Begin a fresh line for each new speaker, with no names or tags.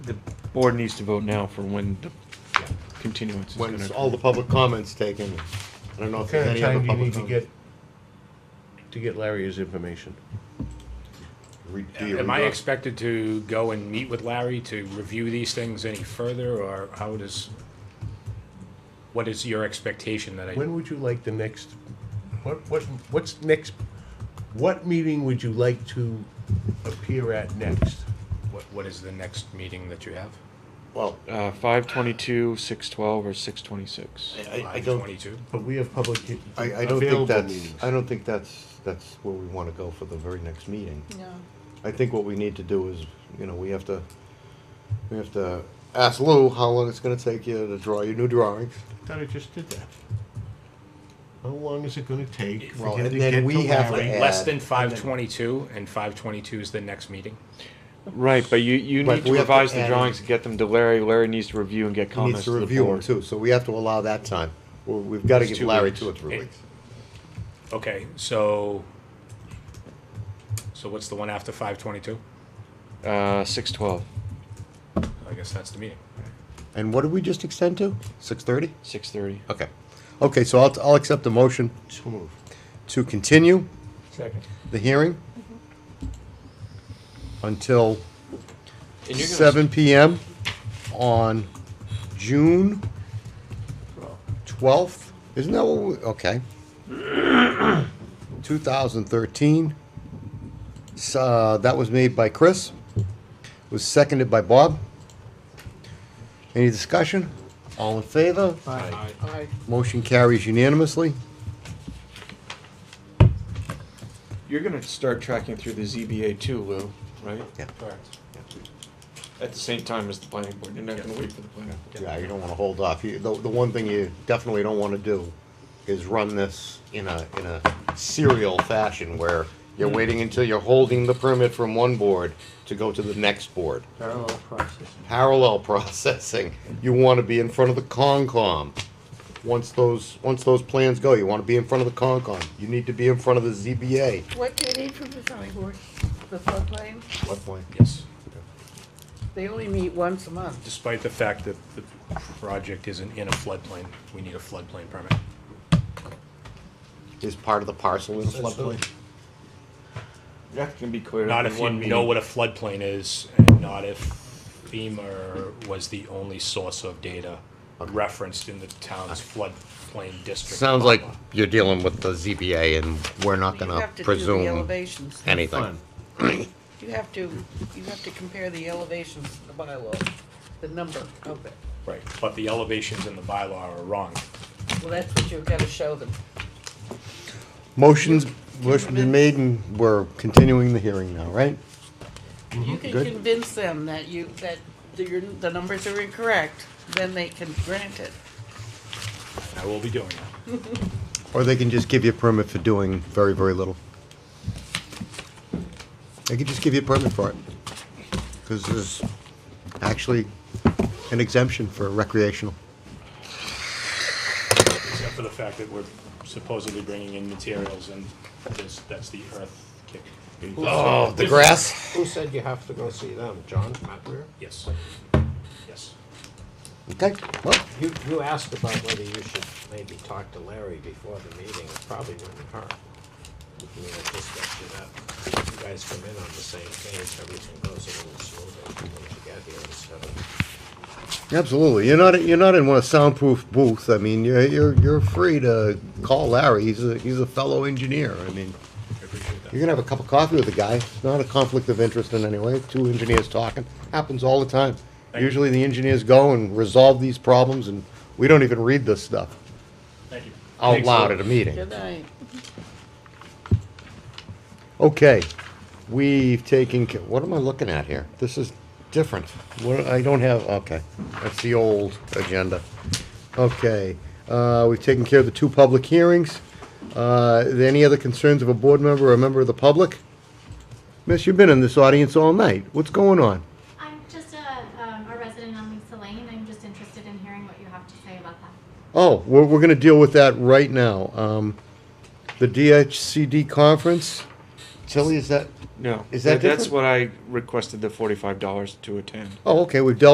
The board needs to vote now for when the continuance is gonna.
When all
occur.
the public comments taken, I don't know if
What kind
there's any
of
other
time do you
public
need to
comment.
get, to get Larry his information?
Re- do you
Am I
redraw?
expected to go and meet with Larry to review these things any further, or how does, what is your expectation that I,
When would you like the next, what, what, what's next, what meeting would you like to appear at next?
what, what is the next meeting that you have?
Well,
Uh, five twenty-two, six twelve, or six twenty-six.
I- I, I don't,
22?
But we have public. he-
I, I don't think
available
that's,
meetings.
I don't think that's, that's where we wanna go for the very next meeting.
No.
I think what we need to do is, you know, we have to, we have to ask Lou how long it's gonna take you to draw your new drawings.
Thought I just did that. How long is it gonna take? for
Well,
him
and
to
then
get to
we have to
Larry?
add-
Less than
and then-
five twenty-two, and five twenty-two is the next meeting?
Right, but you, you need
Right, but
to
we have to
revise the
add-
drawings and get them to Larry. Larry needs to review and get
He needs
comments
to
to the
review them
board.
too, so we have to allow that time. We- We've gotta
It's
give
two
Larry
weeks.
two or three
It-
weeks.
Okay, so, so what's the one after five twenty-two?
Uh, six twelve,
I guess that's the meeting.
And what did we just extend to? Six thirty?
six thirty.
Okay. Okay, so I'll, I'll accept the motion
So moved.
to continue
Second.
the hearing until seven PM on June twelfth. Isn't that what, we- okay. Two thousand thirteen. Uh, that was made by Chris, was seconded by Bob. Any discussion? All in favor?
Aye.
Motion carries unanimously.
You're gonna start tracking through the ZBA too, Lou, right?
Yeah.
Correct.
At the same time as the planning board. You're not gonna wait for the planning board.
Yeah, you don't wanna hold off. You, the, the one thing you definitely don't wanna do is run this in a, in a serial fashion where you're
Hmm.
waiting until you're holding the permit from one board to go to the next board.
Parallel processing.
Parallel processing. You wanna be in front of the Concom. Once those, once those plans go, you wanna be in front of the Concom. You need to be in front of the ZBA.
What do you need from the zoning board? The floodplain?
What point?
Yes,
They only meet once a month.
despite the fact that the project isn't in a floodplain, we need a floodplain permit.
Is part of the parcel in the floodplain?
That can be cleared
Not
up
if
in
you
one
know
meeting.
what a floodplain is, and not if FEMA was the only source of data referenced in the town's floodplain district.
Sounds like
bylaw.
you're dealing with the ZBA and we're not
You
gonna
have to do the
presume
elevations.
anything.
You have to, you have to compare the elevations to the bylaw, the number of it.
Right, but the elevations in the bylaw are wrong.
Well, that's what you've got to show them.
Motion's, motion's been made and we're continuing the hearing now, right?
You can
Good.
convince them that you, that the, your- the numbers are incorrect, then they can grant it.
and I will be doing that.
Or they can just give you a permit for doing very, very little. They could just give you a permit for it. Because there's actually an exemption for recreational.
Except for the fact that we're supposedly bringing in materials and this, that's the earth kick.
Oh, the grass?
Who said you have to go see them? John McRae?
Yes, yes.
Okay, well,
You, you asked about whether you should maybe talk to Larry before the meeting. It probably wouldn't hurt. I mean, it just gets you that, you guys come in on the same page, everything goes a little smoother once you get here instead of.
absolutely. You're not, you're not in one of soundproof booth. I mean, you're, you're, you're free to call Larry. He's a, he's a fellow engineer. I mean,
I appreciate that.
You're gonna have a cup of coffee with the guy. It's not a conflict of interest in any way. Two engineers talking happens all the time.
Thank you.
Usually the engineers go and resolve these problems, and we don't even read this stuff
Thank you.
out
Thanks, Lou.
loud at a meeting.
Good night.
Okay, we've taken. ca- What am I looking at here? This is different. What I don't have. Okay, that's the old agenda. Okay, uh, we've taken care of the two public hearings. Uh, any other concerns of a board member or a member of the public? Miss, you've been in this audience all night. What's going on?
I'm just a, um, a resident on Lisa Lane. I'm just interested in hearing what you have to say about that.
Oh, we're, we're gonna deal with that right now. Um, the DHCD conference, Tilly, is that,
No.
Is that
That's
different?
what I requested the forty-five dollars to attend.
oh, okay, we've dealt